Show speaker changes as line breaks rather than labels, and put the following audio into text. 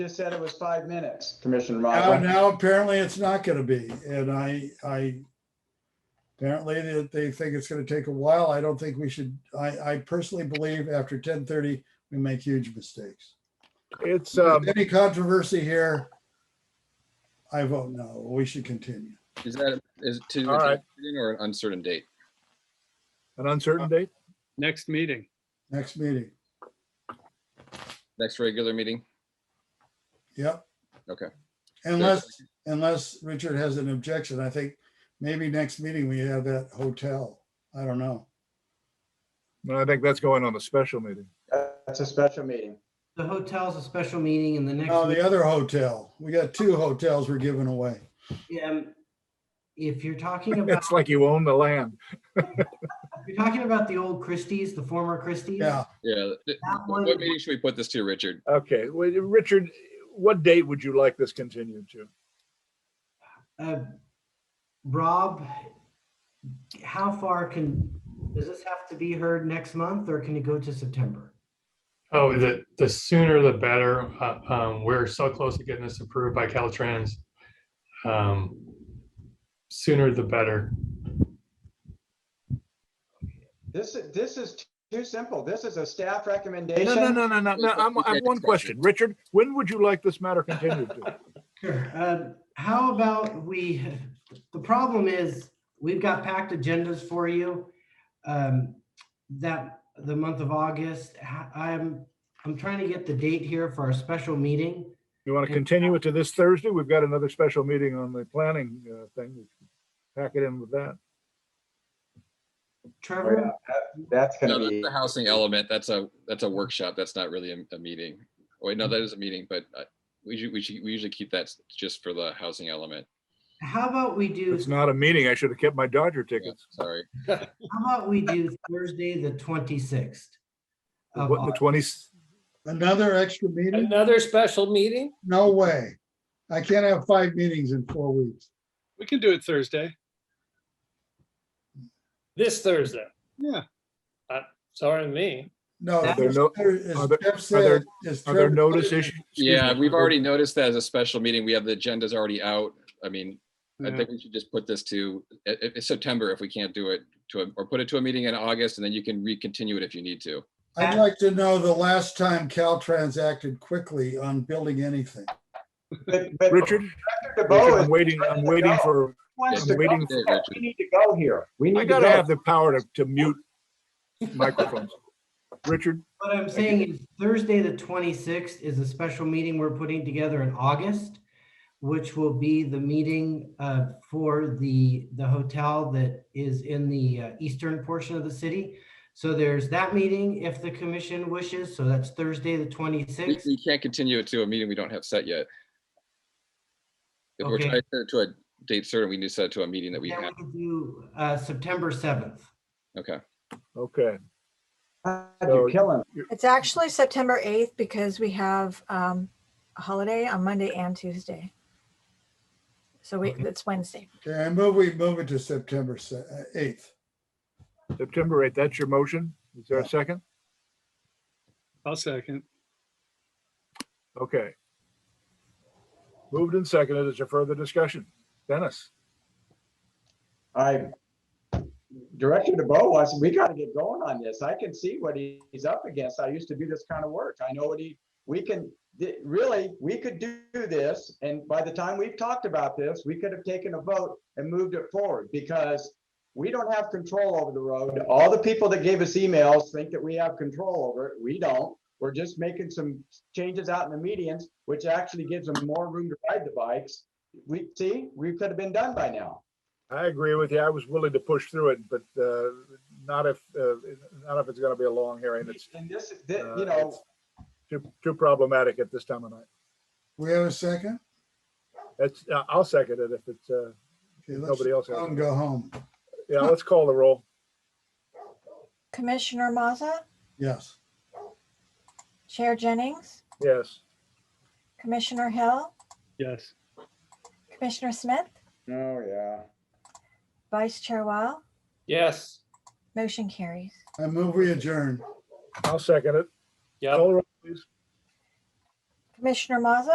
just said it was five minutes, Commissioner
Now,
Motley.
now apparently it's not gonna be, and I, I, apparently they- they think it's gonna take a while. I don't think we should, I, I personally believe after ten thirty, we make huge mistakes.
It's,
If
um,
there's Any controversy here? I vote no, we should continue.
Is that, is it to
All right.
a meeting or an uncertain date?
an uncertain date.
Next meeting.
Next meeting,
Next regular meeting?
yep.
Okay.
Unless, unless Richard has an objection, I think maybe next meeting we have that hotel. I don't know.
But I think that's going on a special meeting.
That's a special meeting.
The hotel's a special meeting and the next.
No, Oh, the other hotel, we got two hotels we're giving away.
meeting, um, If you're talking about,
It's like you own the land.
if you're talking about the old Christie's, the former Christie's.
Yeah,
Yeah. th-
That one-
What meeting should we put this to, Richard?
Okay, well, Richard, what date would you like this continued to?
uh, Rob, how far can, does this have to be heard next month or can it go to September?
Oh, the, the sooner the better. Uh, um, we're so close to getting this approved by Caltrans. Um, sooner the better.
This, is this is too simple. This is a staff recommendation.
No, no, no, no, no, no, I'm, I have one question. Richard, when would you like this matter continued to?
Sure. Uh, how about we, the problem is, we've got packed agendas for you. Um, that, the month of August, Ha- I'm, I'm trying to get the date here for our special meeting.
You want to continue it to this Thursday? We've got another special meeting on the planning uh, thing. We can Pack it in with that.
Oh, yeah,
Trevor,
that- That's
No,
gonna
that's
be,
the housing element. That's a, that's a workshop. That's not really a, a meeting. Wait, no, that is a meeting, but uh, we usually, we should, we usually keep that s- just for the housing element.
how about we do,
It's not a meeting. I should have kept my Dodger
Yeah,
tickets.
Sorry.
how about we do Thursday, the twenty-sixth? of
What, the
August?
twenties?
another extra meeting?
Another special meeting?
No way. I can't have five meetings in four weeks.
We can do it Thursday.
This Thursday? Uh,
Yeah.
Sorry, me.
No,
Are
there no- are
as
there-
Jeff
are there-
said, as
Are there
Trevor
notice
said,
issues?
Yeah, we've already noticed that as a special meeting. We have the agendas already out. I mean, I
Yeah.
think we should just put this to, i- i- September if we can't do it to, a- or put it to a meeting in August and then you can recontinue it if you need to.
I'd like to know the last time Caltrans acted quickly on building anything.
but, but Richard
Richard, Richard,
DeBoe
I'm
is,
waiting, I'm waiting for,
wants
I'm
to go.
waiting
for-
We need to go here. We
I
need to
gotta
go.
have the power to, to mute microphones. Richard,
What I'm saying is Thursday, the twenty-sixth is a special meeting we're putting together in August, which will be the meeting uh, for the, the hotel that is in the uh, eastern portion of the city. So there's that meeting if the commission wishes. So that's Thursday, the
We,
twenty-sixth.
we can't continue it to a meeting we don't have set yet. If we're
Okay.
trying to set it to a date certain, we need to set it to a meeting that we
Then we
have.
can do uh, September seventh.
Okay.
okay.
You're killing me.
It's actually September 8th because we have um, a holiday on Monday and Tuesday. So we, it's Wednesday.
Okay, I move, we move it to September se- uh, 8th.
September eighth, that's your motion? Is there a second?
I'll second.
Okay. Moved and seconded. Is there further discussion? Dennis?
I, Director DeBoe wants, we gotta get going on this. I can see what he- he's up against. I used to do this kind of work. I know what he, we can, th- really, we could do this, and by the time we've talked about this, we could have taken a vote and moved it forward, because we don't have control over the road. All the people that gave us emails think that we have control over it. We don't. We're just making some changes out in the medians, which actually gives them more room to ride the bikes. We, see, we could have been done by now.
I agree with you. I was willing to push through it, but uh, not if, uh, not if it's going to be a long hearing. It's
And this, thi-
Uh,
you know,
it's- too, too problematic at this time of night.
We have a second?
That's, uh, I'll second it if it's, uh,
Okay, let's
Nobody else has
go and
it.
Go home.
yeah, let's call the roll.
Commissioner Maza,
Yes.
Chair Jennings,
Yes.
Commissioner Hill,
Yes.
Commissioner Smith,
oh, yeah.
Vice Chair Wile,
Yes.
motion carries.
I move, we adjourn.
I'll second it.
Yep.
Call the roll.
Commissioner Maza?